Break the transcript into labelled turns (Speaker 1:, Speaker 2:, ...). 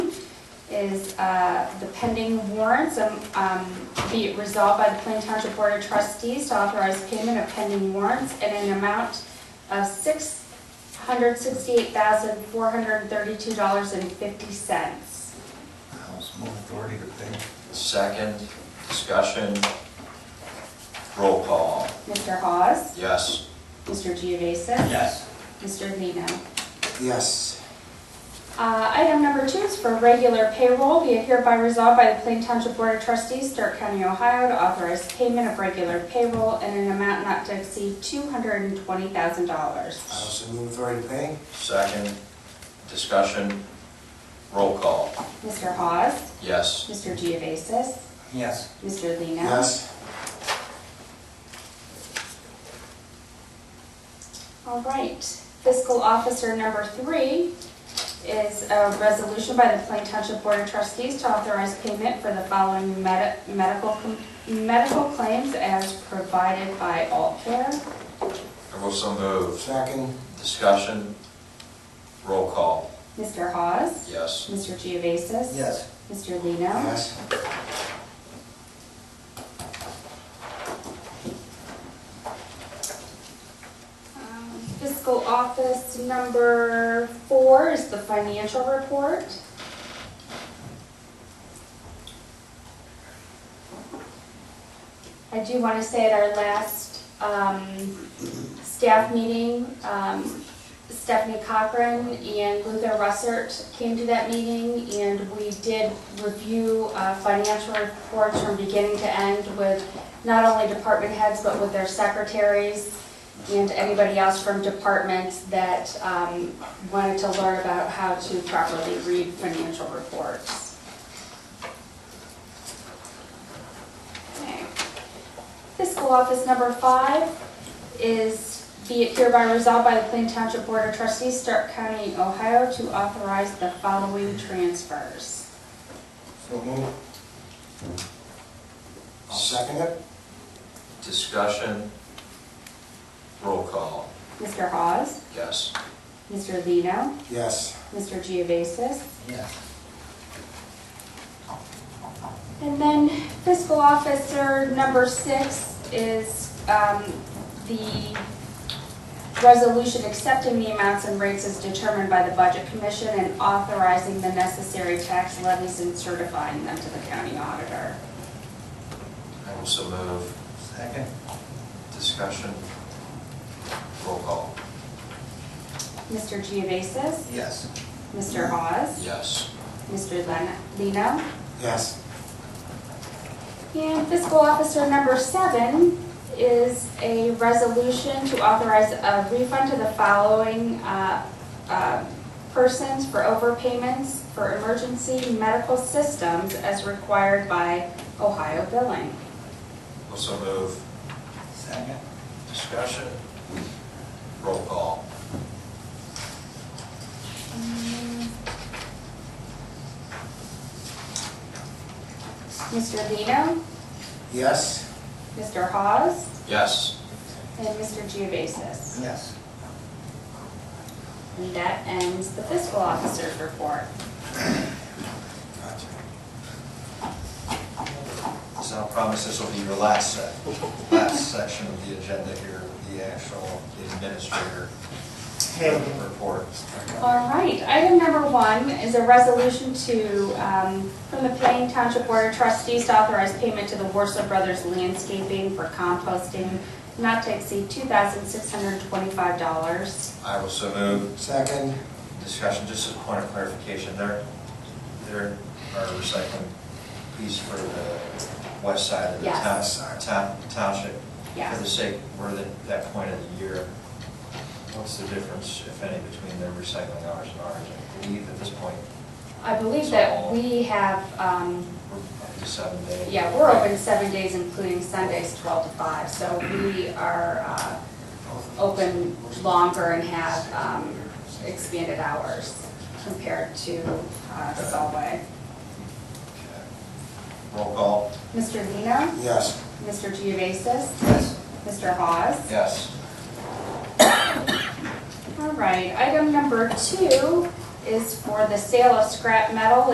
Speaker 1: is uh, the pending warrants. Um, um, Be it resolved by the Plain Township Board of Trustees to authorize payment of pending warrants in an amount of $668,432.50.
Speaker 2: House more authority to pay.
Speaker 3: Second, discussion, roll call.
Speaker 1: Mr. Hawes?
Speaker 3: Yes.
Speaker 1: Mr. Geovasis?
Speaker 4: Yes.
Speaker 1: Mr. Lino?
Speaker 4: Yes.
Speaker 1: Uh, Item number two is for regular payroll. Be it hereby resolved by the Plain Township Board of Trustees, Stark County, Ohio, to authorize payment of regular payroll in an amount not to exceed
Speaker 4: I
Speaker 1: $220,000.
Speaker 4: also move authority to pay.
Speaker 3: Second, discussion, roll call.
Speaker 1: Mr. Hawes?
Speaker 3: Yes.
Speaker 1: Mr. Geovasis?
Speaker 4: Yes.
Speaker 1: Mr. Lino?
Speaker 4: Yes.
Speaker 1: All right. Fiscal Officer number three is a resolution by the Plain Township Board of Trustees to authorize payment for the following medi- medical com- medical claims as provided by All Care.
Speaker 3: I will so move.
Speaker 4: Second.
Speaker 3: Discussion, roll call.
Speaker 1: Mr. Hawes?
Speaker 3: Yes.
Speaker 1: Mr. Geovasis?
Speaker 4: Yes.
Speaker 1: Mr. Lino?
Speaker 4: Yes.
Speaker 1: Um, Fiscal Office number four is the financial report. I do want to say at our last um, staff meeting, um, Stephanie Cochran and Luther Russert came to that meeting, and we did review uh, financial reports from beginning to end with not only department heads, but with their secretaries and anybody else from departments that um, wanted to learn about how to properly read financial reports. Okay. Fiscal Office number five is be it hereby resolved by the Plain Township Board of Trustees, Stark County, Ohio, to authorize the following transfers.
Speaker 4: So move. I'll second it.
Speaker 3: Discussion, roll call.
Speaker 1: Mr. Hawes,
Speaker 3: Yes.
Speaker 1: Mr. Lino,
Speaker 4: Yes.
Speaker 1: Mr. Geovasis,
Speaker 4: Yes.
Speaker 1: And then fiscal officer number six is um, the resolution accepting the amounts and rates as determined by the Budget Commission and authorizing the necessary tax levies and certifying them to the county auditor.
Speaker 3: I will so move.
Speaker 4: Second.
Speaker 3: Discussion, roll call.
Speaker 1: Mr. Geovasis?
Speaker 4: Yes.
Speaker 1: Mr. Hawes?
Speaker 3: Yes.
Speaker 1: Mr. Len- Lino?
Speaker 4: Yes.
Speaker 1: And fiscal officer number seven is a resolution to authorize a refund to the following uh, uh, persons for overpayments for emergency medical systems as required by Ohio billing.
Speaker 3: Will so move.
Speaker 4: Second.
Speaker 3: Discussion, roll call.
Speaker 1: Mr. Lino,
Speaker 4: Yes.
Speaker 1: Mr. Hawes,
Speaker 3: Yes.
Speaker 1: and Mr. Geovasis.
Speaker 4: Yes.
Speaker 1: And that ends the fiscal officer's report.
Speaker 4: Gotcha.
Speaker 3: So I promise this will be your last, se- last section of the agenda here, the actual administrator report.
Speaker 1: All right, item number one is a resolution to, um, from the Plain Township Board of Trustees to authorize payment to the Warsaw Brothers Landscaping for composting not to exceed $2,625.
Speaker 3: I will so move.
Speaker 4: Second.
Speaker 3: Discussion, just as a point of clarification, there, there are recycling piece for the west side of the
Speaker 1: Yes.
Speaker 3: town, town- township.
Speaker 1: Yeah.
Speaker 3: For the sake, we're at that point of the year. What's the difference, if any, between their recycling hours and ours? I believe at this point,
Speaker 1: I believe that we have, um,
Speaker 3: we're up to seven days.
Speaker 1: yeah, we're open seven days, including Sundays, 12 to 5, so we are uh, open longer and have um, expanded hours compared to uh, Solway.
Speaker 3: Okay. Roll call.
Speaker 1: Mr. Lino?
Speaker 4: Yes.
Speaker 1: Mr. Geovasis?
Speaker 3: Yes.
Speaker 1: Mr. Hawes?
Speaker 3: Yes.
Speaker 1: All right, item number two is for the sale of scrap metal